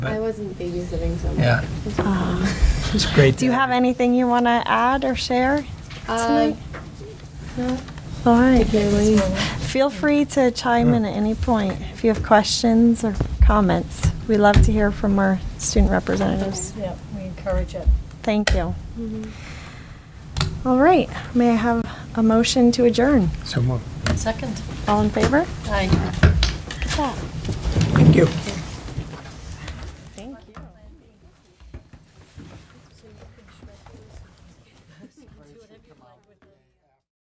I wasn't babysitting so much. Yeah. It's okay. It's great. Do you have anything you want to add or share? Uh, no, All right. really. Feel free to chime in at any point if you have questions or comments. We love to hear from our student representatives. Yeah, we encourage it. Thank you. Mm-hmm. All right, may I have a motion to adjourn? So moved. Second. All in favor? Aye. Look at that. Thank you.